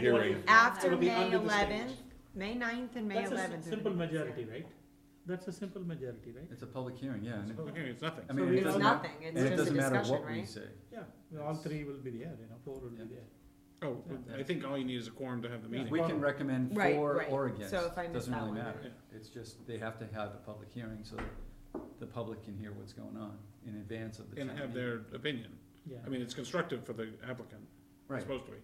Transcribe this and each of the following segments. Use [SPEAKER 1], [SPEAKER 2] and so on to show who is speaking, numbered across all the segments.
[SPEAKER 1] hearing.
[SPEAKER 2] After
[SPEAKER 3] It'll be
[SPEAKER 2] May
[SPEAKER 3] under the stage.
[SPEAKER 2] eleventh, May 9th and May
[SPEAKER 3] That's a
[SPEAKER 2] eleventh.
[SPEAKER 3] s- simple majority, right? That's a simple majority, right?
[SPEAKER 4] It's a public hearing, yeah. and it-
[SPEAKER 5] Okay, it's nothing.
[SPEAKER 4] I mean,
[SPEAKER 3] So
[SPEAKER 4] it
[SPEAKER 3] it's
[SPEAKER 4] doesn't matter,
[SPEAKER 2] nothing,
[SPEAKER 4] and
[SPEAKER 2] it's
[SPEAKER 4] it
[SPEAKER 2] just a
[SPEAKER 4] doesn't matter
[SPEAKER 2] discussion,
[SPEAKER 4] what we
[SPEAKER 2] right?
[SPEAKER 4] say.
[SPEAKER 3] Yeah, well, all three will be there, you know, four will be there.
[SPEAKER 5] Oh, I think all you need is a quorum to have the
[SPEAKER 3] Yeah.
[SPEAKER 5] meeting.
[SPEAKER 4] We can recommend
[SPEAKER 2] Right,
[SPEAKER 4] for
[SPEAKER 2] right.
[SPEAKER 4] or against,
[SPEAKER 2] So if I miss
[SPEAKER 4] doesn't
[SPEAKER 2] that
[SPEAKER 4] really
[SPEAKER 2] one,
[SPEAKER 4] matter.
[SPEAKER 5] then-
[SPEAKER 4] It's just, they have to have a public hearing so that the public can hear what's going on in advance of the town
[SPEAKER 5] And have
[SPEAKER 4] meeting.
[SPEAKER 5] their opinion.
[SPEAKER 3] Yeah.
[SPEAKER 5] I mean, it's constructive for the applicant, it's
[SPEAKER 4] Right,
[SPEAKER 5] supposed to be.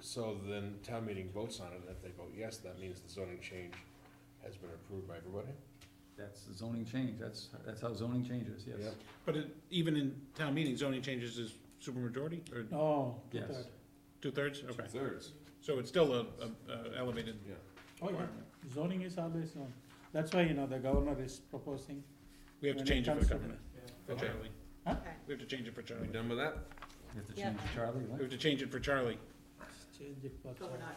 [SPEAKER 1] So then town meeting votes on it, and if they vote yes, that means the zoning change has been approved by everybody?
[SPEAKER 4] that's the zoning change, that's, that's how zoning changes, yes.
[SPEAKER 1] Yep.
[SPEAKER 5] But it, even in town meetings, zoning changes is supermajority or
[SPEAKER 3] Oh,
[SPEAKER 4] Yes.
[SPEAKER 3] two-third.
[SPEAKER 5] two-thirds? Okay,
[SPEAKER 1] Two-thirds.
[SPEAKER 5] so it's still a, a a elevated
[SPEAKER 1] Yeah.
[SPEAKER 3] Oh, yeah,
[SPEAKER 5] requirement.
[SPEAKER 3] zoning is always on. That's why, you know, the governor is proposing.
[SPEAKER 5] We have to
[SPEAKER 3] when it
[SPEAKER 5] change it for
[SPEAKER 3] comes
[SPEAKER 5] the
[SPEAKER 3] to
[SPEAKER 5] government, for
[SPEAKER 1] Okay.
[SPEAKER 5] Charlie.
[SPEAKER 3] Huh?
[SPEAKER 2] Okay.
[SPEAKER 5] We have to change it for
[SPEAKER 1] Are we
[SPEAKER 5] Charlie.
[SPEAKER 1] done with that?
[SPEAKER 4] You have to
[SPEAKER 2] Yeah.
[SPEAKER 4] change Charlie,
[SPEAKER 5] We
[SPEAKER 4] what?
[SPEAKER 5] have to change it for Charlie.
[SPEAKER 3] the- Change it for.
[SPEAKER 6] So we're not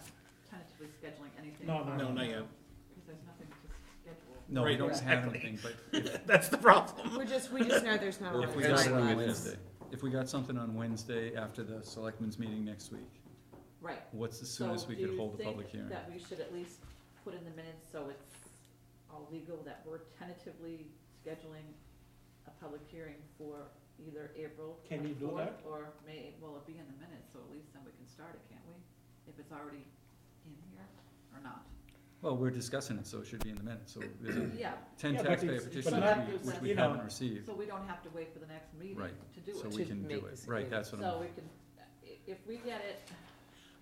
[SPEAKER 6] tentatively scheduling anything?
[SPEAKER 3] No, no,
[SPEAKER 5] No, not yet.
[SPEAKER 6] Because there's nothing to schedule.
[SPEAKER 4] No, we
[SPEAKER 5] Right,
[SPEAKER 4] don't have
[SPEAKER 5] exactly.
[SPEAKER 4] anything, but if,
[SPEAKER 5] That's the problem.
[SPEAKER 2] We're just, we just know there's not a lot
[SPEAKER 4] if
[SPEAKER 2] of
[SPEAKER 4] we got it on
[SPEAKER 2] time
[SPEAKER 4] Wednesday, if we got something on Wednesday after the selectmen's meeting next week,
[SPEAKER 6] Right.
[SPEAKER 4] what's the soonest we could hold a public hearing?
[SPEAKER 6] So do you think that we should at least put in the minutes so it's all legal that we're tentatively scheduling a public hearing for either April
[SPEAKER 3] Can you do
[SPEAKER 6] 24th
[SPEAKER 3] that?
[SPEAKER 6] Or May, well, it'll be in the minutes, so at least then we can start it, can't we? If it's already in here or not?
[SPEAKER 4] Well, we're discussing it, so it should be in the minutes, so there's a
[SPEAKER 6] Yeah,
[SPEAKER 4] ten
[SPEAKER 3] Yeah, but
[SPEAKER 4] taxpayer
[SPEAKER 3] it's- it's
[SPEAKER 4] petitions
[SPEAKER 3] not-
[SPEAKER 4] that we- which we
[SPEAKER 3] you know,
[SPEAKER 4] haven't received,
[SPEAKER 6] so we don't have to wait for the next meeting
[SPEAKER 4] Right,
[SPEAKER 6] to do it.
[SPEAKER 4] so we
[SPEAKER 2] To
[SPEAKER 4] can do
[SPEAKER 2] make
[SPEAKER 4] it,
[SPEAKER 2] this
[SPEAKER 4] right,
[SPEAKER 2] agreement.
[SPEAKER 4] that's what
[SPEAKER 6] So
[SPEAKER 4] I'm,
[SPEAKER 6] we can, i- if we get it,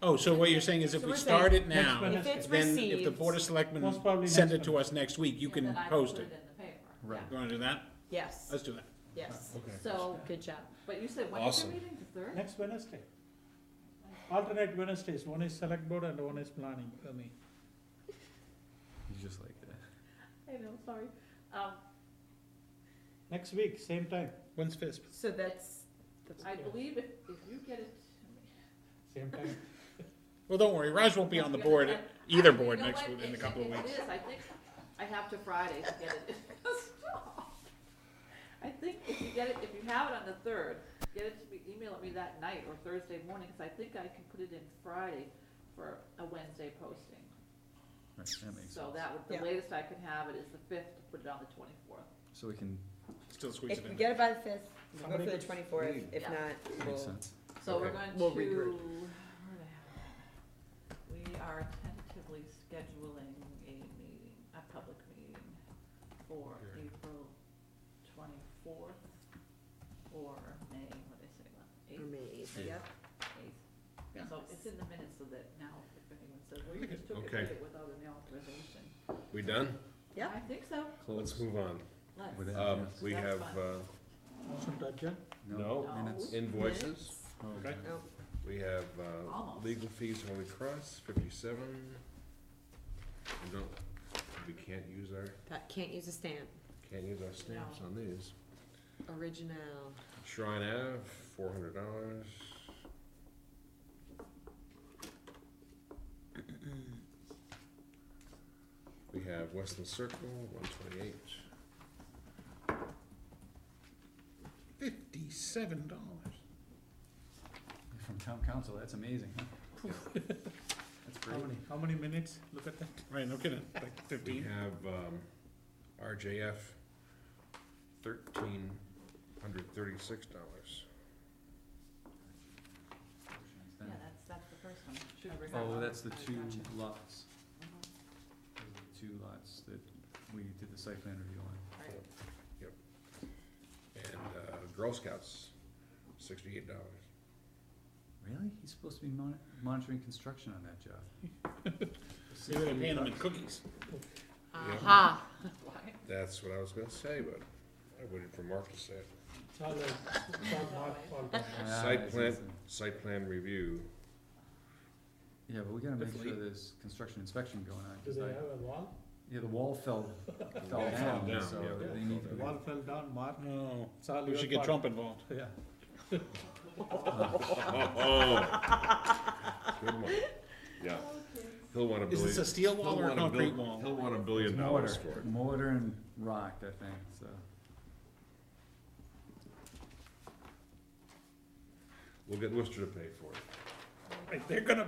[SPEAKER 5] Oh, so what you're saying is if
[SPEAKER 2] So
[SPEAKER 5] we
[SPEAKER 2] we're saying
[SPEAKER 5] start it
[SPEAKER 3] next
[SPEAKER 5] now,
[SPEAKER 3] one.
[SPEAKER 2] If it's
[SPEAKER 5] then if the
[SPEAKER 2] received,
[SPEAKER 5] Board of Selectmen
[SPEAKER 3] Most probably
[SPEAKER 5] send it
[SPEAKER 3] next
[SPEAKER 5] to us next week, you
[SPEAKER 6] and
[SPEAKER 5] can
[SPEAKER 6] then I can
[SPEAKER 5] post
[SPEAKER 6] put it
[SPEAKER 5] it.
[SPEAKER 6] in the paper.
[SPEAKER 4] Right.
[SPEAKER 6] Yeah.
[SPEAKER 5] You wanna do that?
[SPEAKER 2] yes,
[SPEAKER 5] Let's do that.
[SPEAKER 2] yes.
[SPEAKER 1] Okay.
[SPEAKER 6] So,
[SPEAKER 2] Good job.
[SPEAKER 6] but you said when is
[SPEAKER 1] Awesome.
[SPEAKER 6] your meeting, the third?
[SPEAKER 3] Next Wednesday. Alternate Wednesdays, one is select board and one is planning for me.
[SPEAKER 4] you just like uh, that.
[SPEAKER 6] I know, sorry. Um,
[SPEAKER 3] Next week, same time,
[SPEAKER 5] When's FISP?
[SPEAKER 2] So that's, that's
[SPEAKER 6] I
[SPEAKER 2] okay.
[SPEAKER 6] believe if, if you get it to me.
[SPEAKER 3] same time.
[SPEAKER 5] Well, don't worry, Raj won't be on the board, either board next week, in a couple of
[SPEAKER 6] It
[SPEAKER 5] weeks.
[SPEAKER 6] is, I think, I have to Friday to get it. Stop. I think if you get it, if you have it on the third, get it to me, email it me that night or Thursday morning, cause I think I can put it in Friday for a Wednesday posting.
[SPEAKER 4] Right, that makes
[SPEAKER 6] So
[SPEAKER 4] sense.
[SPEAKER 6] that would,
[SPEAKER 2] Yeah.
[SPEAKER 6] the latest I can have it is the fifth to put it on the twenty-fourth.
[SPEAKER 4] So we can,
[SPEAKER 5] Still squeeze
[SPEAKER 2] If
[SPEAKER 5] it
[SPEAKER 2] we
[SPEAKER 5] in.
[SPEAKER 2] get it by the fifth, we'll go
[SPEAKER 3] Somebody
[SPEAKER 2] for the
[SPEAKER 3] could
[SPEAKER 2] twenty-fourth,
[SPEAKER 1] leave.
[SPEAKER 2] if
[SPEAKER 6] Yeah.
[SPEAKER 2] not,
[SPEAKER 4] makes
[SPEAKER 2] we'll,
[SPEAKER 4] sense.
[SPEAKER 6] So we're
[SPEAKER 1] Okay.
[SPEAKER 6] going to.
[SPEAKER 2] We'll regroup.
[SPEAKER 6] where the hell am I? We are tentatively scheduling a meeting, a public meeting for
[SPEAKER 5] Hearing.
[SPEAKER 6] April twenty-fourth or May, what did I say, what,
[SPEAKER 2] or
[SPEAKER 6] eighth,
[SPEAKER 2] May eighth,
[SPEAKER 4] Yeah.
[SPEAKER 2] yep.
[SPEAKER 6] eighth? So it's in the minutes so that now if anyone says, well, you just took it
[SPEAKER 1] Okay.
[SPEAKER 6] did it without an authorization.
[SPEAKER 1] We done?
[SPEAKER 2] Yeah.
[SPEAKER 6] I think so,
[SPEAKER 1] Let's
[SPEAKER 4] Close.
[SPEAKER 1] move on.
[SPEAKER 6] let's.
[SPEAKER 4] With that,
[SPEAKER 1] Um,
[SPEAKER 4] yes.
[SPEAKER 1] we
[SPEAKER 6] That's
[SPEAKER 1] have,
[SPEAKER 6] fine.
[SPEAKER 1] uh,
[SPEAKER 3] Motion to adjourn.
[SPEAKER 1] no
[SPEAKER 6] No.
[SPEAKER 4] Minutes.
[SPEAKER 1] invoices,
[SPEAKER 4] Oh,
[SPEAKER 5] Okay.
[SPEAKER 4] yeah.
[SPEAKER 2] Oh,
[SPEAKER 1] we have, uh,
[SPEAKER 6] Almost.
[SPEAKER 1] legal fees, Holy Cross, fifty-seven. We don't, we can't use our,
[SPEAKER 2] that, can't use a stamp,
[SPEAKER 1] can't use our stamps on these.
[SPEAKER 2] original.
[SPEAKER 1] Shrine Ave, four hundred dollars. We have Western Circle, one twenty-eight.
[SPEAKER 5] Fifty-seven dollars.
[SPEAKER 4] From town council, that's amazing, huh? That's
[SPEAKER 3] How
[SPEAKER 4] great.
[SPEAKER 3] many, how many minutes? Look at that.
[SPEAKER 5] Right, no kidding, like
[SPEAKER 1] We
[SPEAKER 5] fifteen.
[SPEAKER 1] have, um, RJF, thirteen hundred thirty-six dollars.
[SPEAKER 6] Yeah, that's, that's the first one, should have
[SPEAKER 4] Oh,
[SPEAKER 6] remembered.
[SPEAKER 4] that's the
[SPEAKER 6] I
[SPEAKER 4] two
[SPEAKER 6] gotcha.
[SPEAKER 4] lots,
[SPEAKER 6] Mhm.
[SPEAKER 4] Those are the two lots that we did the site plan review on.
[SPEAKER 6] Right.
[SPEAKER 1] And, uh, Girl Scouts, sixty-eight dollars.
[SPEAKER 4] Really? He's supposed to be mon- monitoring construction on that job.
[SPEAKER 5] Maybe they're paying them in cookies.
[SPEAKER 2] Aha.
[SPEAKER 6] Why?
[SPEAKER 1] That's what I was gonna say, but I waited for Mark to say it.
[SPEAKER 3] It's all, it's all not fault of-
[SPEAKER 4] Ah,
[SPEAKER 1] Site
[SPEAKER 4] it's-
[SPEAKER 1] plan-
[SPEAKER 4] it's-
[SPEAKER 1] Site plan review,
[SPEAKER 4] Yeah, but we gotta make
[SPEAKER 5] That's
[SPEAKER 4] sure
[SPEAKER 5] late.
[SPEAKER 4] there's construction inspection going on,
[SPEAKER 3] Do
[SPEAKER 4] 'cause
[SPEAKER 3] they
[SPEAKER 4] I-
[SPEAKER 3] have a wall?
[SPEAKER 4] yeah, the wall fell, fell
[SPEAKER 1] wall fell
[SPEAKER 4] down,
[SPEAKER 1] down, yeah,
[SPEAKER 4] so
[SPEAKER 1] the
[SPEAKER 4] they
[SPEAKER 1] wall
[SPEAKER 4] need
[SPEAKER 1] fell
[SPEAKER 4] to.
[SPEAKER 1] down.
[SPEAKER 4] be-
[SPEAKER 3] Wall fell down, Mark.
[SPEAKER 5] No,
[SPEAKER 3] It's all
[SPEAKER 5] Oh. we
[SPEAKER 3] your
[SPEAKER 5] should get
[SPEAKER 3] fault.
[SPEAKER 5] Trump involved.
[SPEAKER 3] Yeah.
[SPEAKER 1] Oh, Good one. Yeah. He'll want a
[SPEAKER 5] Is this a
[SPEAKER 1] billion.
[SPEAKER 5] steel wall
[SPEAKER 1] he'll
[SPEAKER 5] or a
[SPEAKER 1] want a bill-
[SPEAKER 5] concrete wall?
[SPEAKER 1] He'll want a billion
[SPEAKER 4] It's
[SPEAKER 1] dollars
[SPEAKER 4] mortar-
[SPEAKER 1] for it.
[SPEAKER 4] Mortar and rock, I think, so.
[SPEAKER 1] We'll get Worcester to pay for it.
[SPEAKER 6] There
[SPEAKER 5] Like, They're gonna